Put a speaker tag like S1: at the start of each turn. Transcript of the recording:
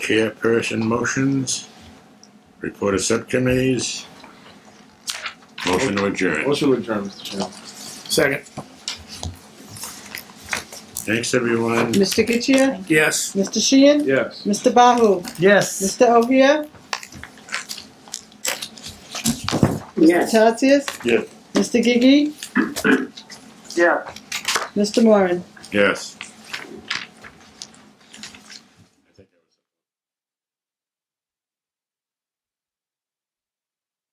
S1: Chairperson motions, report of subcommittees, motion to adjourn.
S2: Motion to adjourn, Mr. Chairman.
S3: Second,
S1: Thanks, everyone.
S4: Mr. Getchia?
S3: yes.
S4: Mr. Sheehan?
S2: Yes.
S4: Mr. Bahu?
S3: Yes.
S4: Mr. Ovia? Mr. Tatsias?
S1: Yes.
S4: Mr. Gigi?
S2: Yeah.
S4: Mr. Moran?
S1: Yes.